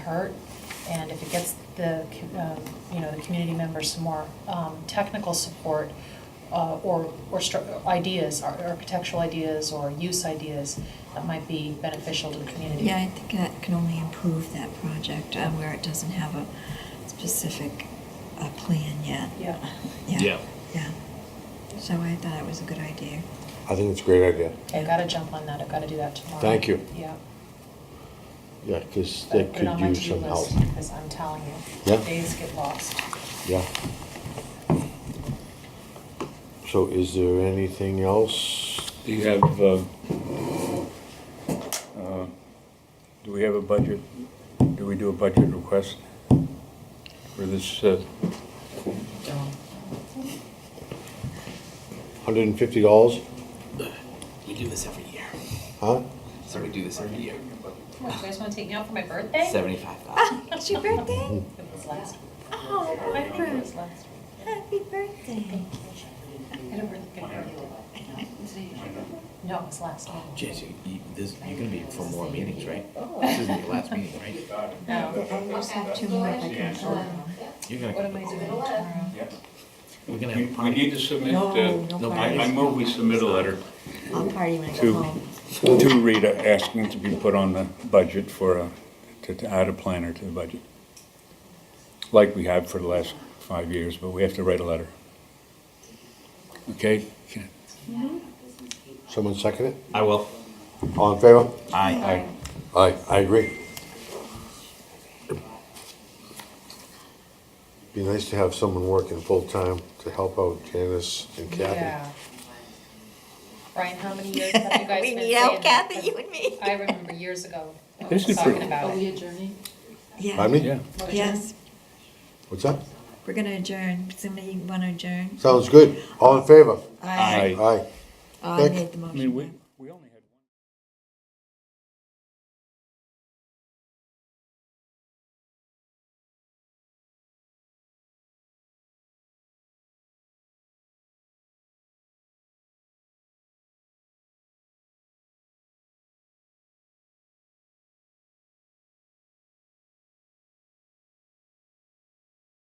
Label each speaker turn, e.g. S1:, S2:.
S1: hurt, and if it gets the, um, you know, the community members some more um, technical support uh, or, or stru- ideas, ar- architectural ideas or use ideas, that might be beneficial to the community.
S2: Yeah, I think that can only improve that project uh, where it doesn't have a specific uh, plan yet.
S1: Yeah.
S2: Yeah,
S3: Yeah.
S2: yeah. So I thought it was a good idea.
S4: I think it's a great idea.
S1: I gotta jump on that, I've gotta do that tomorrow.
S4: Thank you.
S1: Yeah.
S4: Yeah, because they
S1: Put it
S4: could
S1: on my
S4: use
S1: to-do
S4: some help.
S1: list, Because I'm telling you,
S4: Yeah.
S1: days get lost.
S4: Yeah. So is there anything else?
S3: Do you have, uh, uh, do we have a budget, do we do a budget request for this? uh,
S4: Hundred and fifty dollars?
S5: We do this every year.
S4: Huh?
S5: So we do this every year.
S1: Come on, you guys wanna take me out for my birthday?
S5: Seventy-five thousand.
S2: Ah, it's your birthday?
S1: It was last,
S2: Oh,
S1: I think it
S2: Barbara,
S1: was last.
S2: happy birthday.
S1: I don't really get it. No, it was last.
S5: Jess, you, you, this, you're gonna be for more meetings, right? This isn't your last meeting, right?
S1: No.
S2: I just have two more if I can fill them.
S5: You're
S1: What am
S5: gonna,
S1: I doing tomorrow?
S5: we're gonna
S3: We
S5: have a
S3: we need
S5: party.
S3: to submit,
S2: No,
S3: uh,
S2: no
S3: I I
S2: parties.
S3: move we submit a letter
S2: I'll party when I
S3: To-
S2: go home.
S3: to Rita asking to be put on the budget for, a- to to add a planner to the budget. Like we have for the last five years, but we have to write a letter. Okay?
S4: Someone second it?
S5: I will.
S4: All in favor?
S5: Aye.
S4: Aye, I agree. Be nice to have someone working full-time to help out Janice and Kathy.
S1: Yeah. Brian, how many years have you guys
S2: We
S1: been
S2: need
S1: saying
S2: help,
S1: that?
S2: Kathy, you and me.
S1: I remember years ago
S3: This is
S1: talking
S3: pretty-
S1: about
S6: Are we
S1: it.
S6: adjourning?
S2: Yeah,
S4: Pardon me?
S3: Yeah.
S2: yes,
S4: What's that?
S2: we're gonna adjourn. Somebody wanna adjourn?
S4: Sounds good. All in favor?
S2: I,
S4: Aye.
S2: I made the
S3: I mean, we,
S2: motion.